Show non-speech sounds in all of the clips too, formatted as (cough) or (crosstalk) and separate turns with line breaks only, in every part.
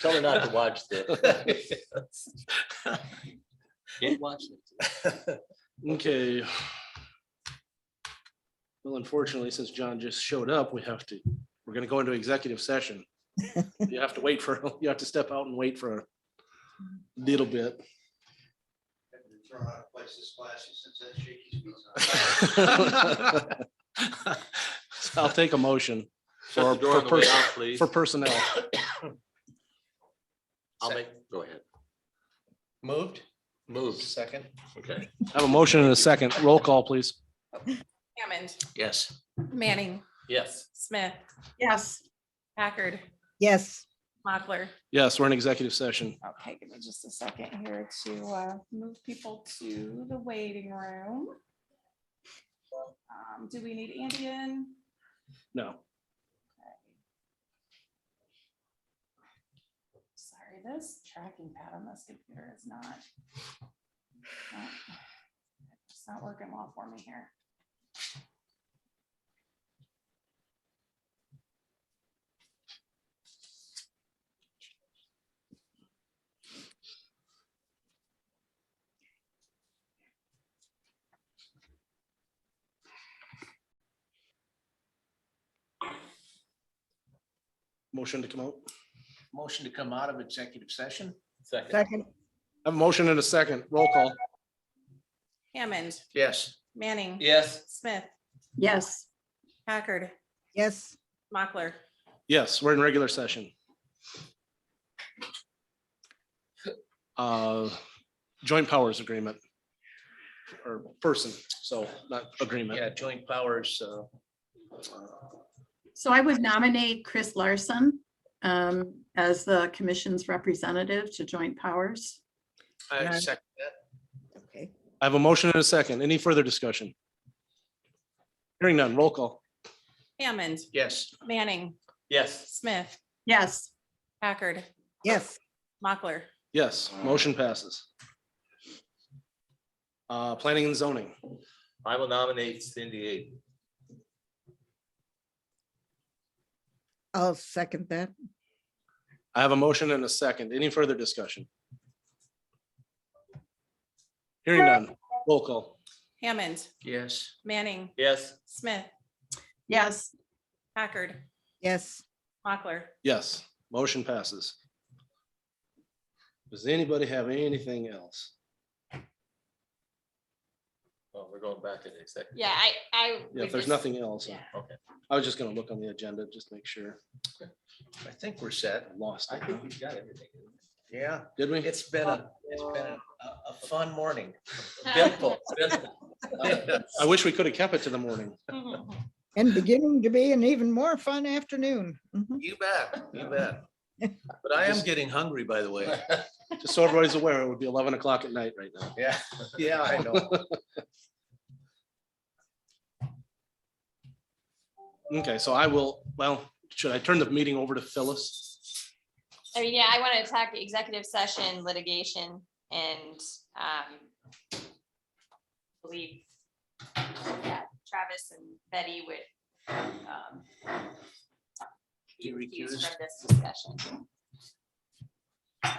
Tell her not to watch the. Can't watch it.
(laughs) Okay. Well, unfortunately, since John just showed up, we have to, we're gonna go into
(laughs)
executive session. You have to wait for, (laughs) you have to step out and wait for a little bit. (laughs)
Turn on a place that's flashy since that shaky speeds.
I'll take a motion
Shut the door on the way out, please.
for personnel.
I'll make, go ahead.
Moved,
Moves.
second.
Okay,
I have a motion and a second. Roll call, please.
Hammond,
Yes.
Manning,
Yes.
Smith. Yes. Packard,
Yes,
Mochler.
Yes, we're in executive session.
Okay, give me just a second here to uh, move people to the waiting room. Um, Do we need Andy in?
No.
Sorry, this tracking pad on this computer is not. not- It's not working well for me here.
Motion to come out.
Motion to come out of executive session?
Second.
second,
I have a motion and a second. Roll call.
Hammond,
Yes.
Manning,
Yes.
Smith,
Yes.
Packard,
yes.
Mochler.
Yes, we're in regular session. Uh, Joint powers agreement. Or person, so not agreement.
Yeah, joint powers, uh,
So I would nominate Chris Larson um, as the commission's representative to Joint Powers.
I
Nice.
second that.
Okay.
I have a motion and a second. Any further discussion? Hearing none, roll call.
Hammond,
Yes.
Manning,
Yes.
Smith,
Yes,
Packard,
Yes,
Mochler.
Yes, motion passes. Uh, Planning and zoning.
I will nominate Cindy Aid.
I'll second that.
I have a motion and a second. Any further discussion? Hearing none, roll call.
Hammond,
Yes.
Manning,
Yes.
Smith,
yes,
Packard,
Yes,
Mochler.
Yes, motion passes. Does anybody have anything else?
Well, Oh, we're going back to the executive.
Yeah, I, I.
Yeah,
would
if there's
just- (laughs)
nothing else,
yeah.
Okay.
I was just gonna look on the agenda, just make sure.
I think we're set.
I Lost it.
we've got everything.
Yeah,
Did we?
it's been a, it's been a, a fun morning.
(laughs)
Simple, simple.
I wish we could have kept it to the morning.
and beginning to be an even more fun afternoon. Mhm.
(laughs) You bet, you bet. But I am getting hungry, by the way.
Just so everybody's aware, it would be eleven o'clock at night right now.
Yeah, (laughs) yeah, I know.
Okay, so I will, well, should I turn the meeting over to Phyllis?
I mean, yeah, I want to talk executive session litigation and, um, believe yeah, Travis and Betty would, um, be recused from this discussion.
So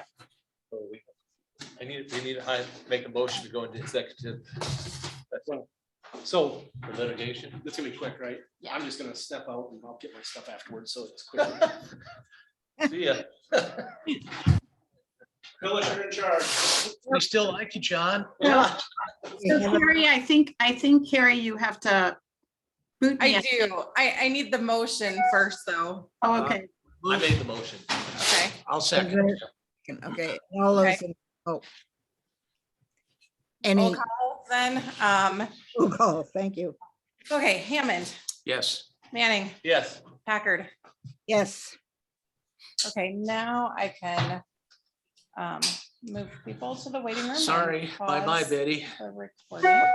Oh, we- I need, we need to hi- make a motion to go into executive
So
for litigation.
it's gonna be quick, right?
Yeah.
I'm just gonna step out and I'll get my stuff afterwards, so it's
(laughs)
quick.
See ya.
Phyllis, you're in charge.
(laughs) We still like you, John.
We have a-
Carrie, I think, I think Carrie, you have to boot me.
I
out.
do. I, I need the motion first, though.
Oh, Okay,
I made the motion.
Okay.
I'll
is
second.
there- Okay, all
Okay.
those, in- oh. Any,
Roll call Then, um,
roll call, thank you.
okay, Hammond,
Yes.
Manning,
Yes.
Packard.
Yes,
Okay, now I can um, move people to the waiting room. and
Sorry, bye-bye,
pause
Betty.
the recording.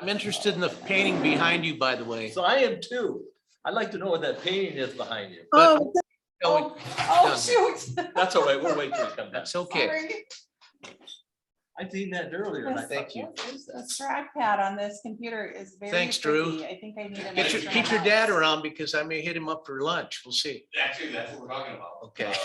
I'm interested in the painting behind you, by the way.
So I am too. I'd like to know what that painting is behind you.
But-
oh,
No,
Oh, oh, shoot. (laughs)
That's all right. We'll wait till you come back.
That's okay.
Sorry.
I seen that earlier. and I
Thank
thought,
you.
This trackpad on this computer is very.
Thanks, Drew.
tricky. I think I need. an
Get your,
extra
get your
mouse.
dad around because I may hit him up for lunch. We'll see.
Actually, that's what we're talking about.
Okay.